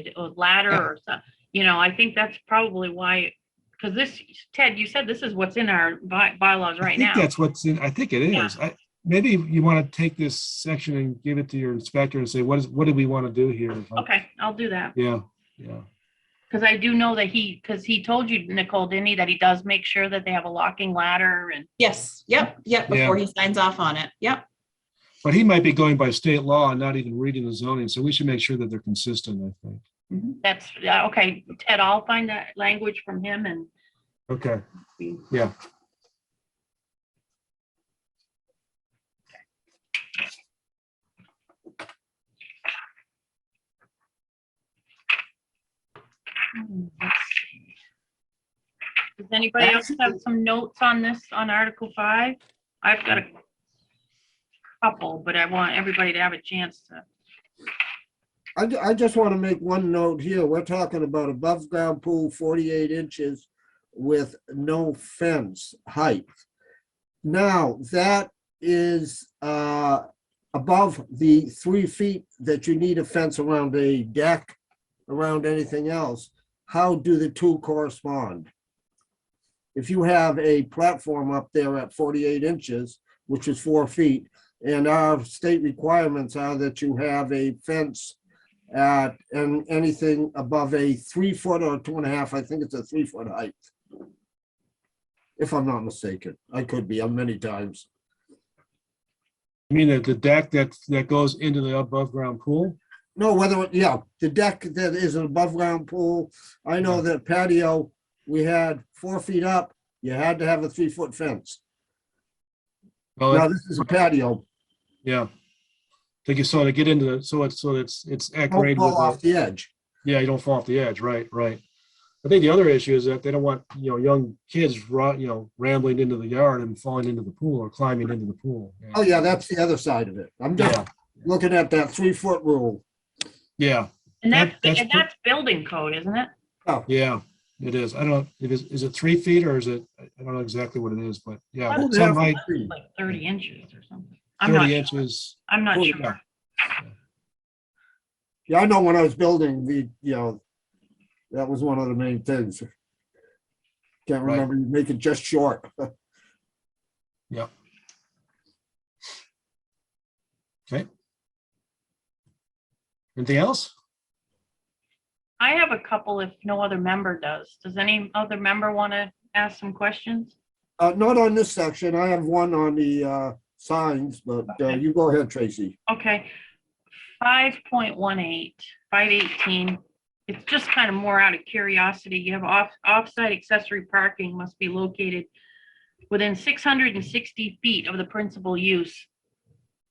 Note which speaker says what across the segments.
Speaker 1: they- a ladder or something. You know, I think that's probably why, because this, Ted, you said this is what's in our by- bylaws
Speaker 2: I
Speaker 1: right
Speaker 2: think
Speaker 1: now.
Speaker 2: That's what's in, I think it
Speaker 1: Yeah.
Speaker 2: is. I, maybe you want to take this section and give it to your inspector and say, what is, what do we want to do here?
Speaker 1: Okay, I'll do that.
Speaker 2: Yeah, yeah.
Speaker 1: Because I do know that he, because he told you, Nicole, didn't he, that he does make sure that they have a locking ladder and,
Speaker 3: Yes, yep, yep,
Speaker 2: Yeah.
Speaker 3: before he signs off on it, yep.
Speaker 2: But he might be going by state law and not even reading the zoning, so we should make sure that they're consistent, I think.
Speaker 1: that's, yeah, okay, Ted, I'll find that language from him and
Speaker 2: Okay,
Speaker 1: we-
Speaker 2: Yeah.
Speaker 1: Hmm, let's see. Does anybody else have some notes on this, on Article Five? I've got a couple, but I want everybody to have a chance to,
Speaker 4: I, ju- I just want to make one note here. We're talking about above ground pool, 48 inches with no fence height. Now, that is uh, above the three feet that you need a fence around a deck, around anything else. How do the two correspond? If you have a platform up there at 48 inches, which is four feet, and our state requirements are that you have a fence at, and anything above a three foot or two and a half, I think it's a three foot height. If I'm not mistaken, I could be, I'm many times.
Speaker 2: I mean, that the deck that, that goes into the above ground pool?
Speaker 4: No, whether, yeah, the deck that is an above ground pool, I know that patio, we had four feet up, you had to have a three foot fence.
Speaker 2: Well,
Speaker 4: Now, this is a patio,
Speaker 2: yeah. Think you saw to get into, the so it's, so it's, it's at
Speaker 4: don't
Speaker 2: grade with,
Speaker 4: fall
Speaker 2: the-
Speaker 4: off the edge.
Speaker 2: yeah, you don't fall off the edge, right, right. I think the other issue is that they don't want, you know, young kids, ru- you know, rambling into the yard and falling into the pool or climbing into the pool.
Speaker 4: Oh, yeah, that's the other side of it. I'm just
Speaker 2: Yeah,
Speaker 4: looking at that three foot rule.
Speaker 2: yeah,
Speaker 1: and
Speaker 2: That-
Speaker 1: that's,
Speaker 2: that's
Speaker 1: and
Speaker 2: pre-
Speaker 1: that's building code, isn't it?
Speaker 2: yeah, it is. I don't, it is, is it three feet or is it, I I don't know exactly what it is, but yeah.
Speaker 1: Well,
Speaker 2: Some height,
Speaker 1: Like thirty inches or something. I'm not,
Speaker 2: thirty
Speaker 1: sure.
Speaker 2: inches.
Speaker 1: I'm not
Speaker 2: Oh,
Speaker 1: sure.
Speaker 4: Yeah, I know when I was building the, you know, that was one of the main things. Can't
Speaker 2: Right.
Speaker 4: remember, you make it just short.
Speaker 2: Anything else?
Speaker 1: I have a couple if no other member does. Does any other member want to ask some questions?
Speaker 4: Uh, not on this section. I have one on the, uh, signs, but, uh,
Speaker 1: Okay.
Speaker 4: you go ahead, Tracy.
Speaker 1: Okay, five point one eight, five eighteen. It's just kind of more out of curiosity. You have off, off-site accessory parking must be located within six hundred and sixty feet of the principal use,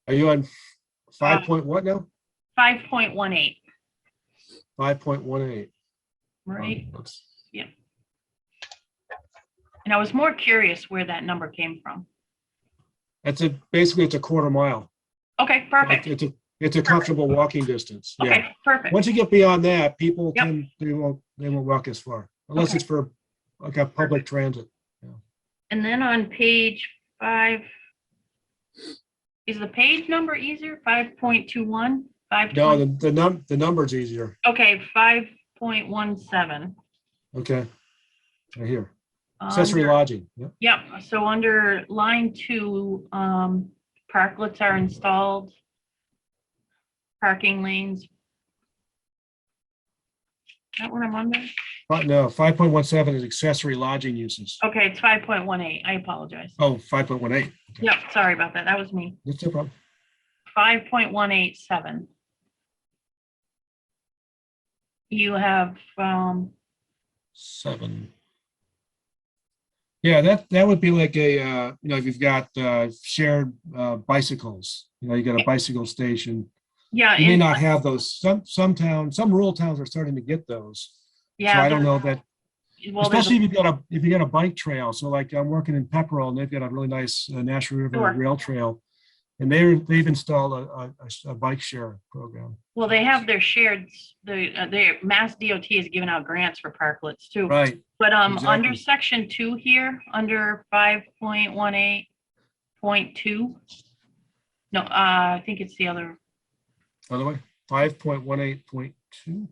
Speaker 2: Are you on
Speaker 1: Uh,
Speaker 2: five point what now?
Speaker 1: five point one eight,
Speaker 2: Five point one eight.
Speaker 1: right?
Speaker 2: Let's
Speaker 1: And I was more curious where that number came from.
Speaker 2: That's a, basically it's a quarter mile.
Speaker 1: Okay,
Speaker 2: Like,
Speaker 1: perfect.
Speaker 2: It's a, it's a comfortable walking distance. Yeah.
Speaker 1: Okay, perfect.
Speaker 2: Once you get beyond that, people
Speaker 1: Yep.
Speaker 2: can, they won't, they won't walk as far unless
Speaker 1: Okay.
Speaker 2: it's for like a public transit.
Speaker 1: And then on page five, is the page number easier? Five point two one, five?
Speaker 2: No, the, the num, the number's easier.
Speaker 1: Okay, five point one seven.
Speaker 2: Okay. Right here. Accessory lodging. Yep.
Speaker 1: Yep, so under line two, um, parklets are installed. Parking lanes. Is that what I'm under?
Speaker 2: But no, five point one seven is accessory lodging uses.
Speaker 1: Okay, it's five point one eight. I apologize.
Speaker 2: Oh, five point one eight.
Speaker 1: Yep, sorry about that. That was me.
Speaker 2: That's no problem.
Speaker 1: Five point one eight seven. You have, um,
Speaker 2: Seven. Yeah, that, that would be like a, uh, you know, if you've got, uh, shared, uh, bicycles, you know, you got a bicycle station.
Speaker 1: yeah.
Speaker 2: You may
Speaker 1: in-
Speaker 2: not have those. Some, some towns, some rural towns are starting to get those. So
Speaker 1: Yeah.
Speaker 2: I don't
Speaker 1: there-
Speaker 2: know that,
Speaker 1: well, there's a-
Speaker 2: especially if you've got a, if you got a bike trail. So like I'm working in Pepperell and they've got a really nice uh, Nashua River
Speaker 1: Sure.
Speaker 2: Rail Trail. And they're, they've installed a, a- a s- a bike share program.
Speaker 1: Well, they have their shared, s- the, uh, their Mass DOT has given out grants for parklets too.
Speaker 2: Right.
Speaker 1: But um, under
Speaker 2: Exactly.
Speaker 1: section two here, under five point one eight point two. No, uh, I think it's the other,
Speaker 2: By the way, five point one eight point two.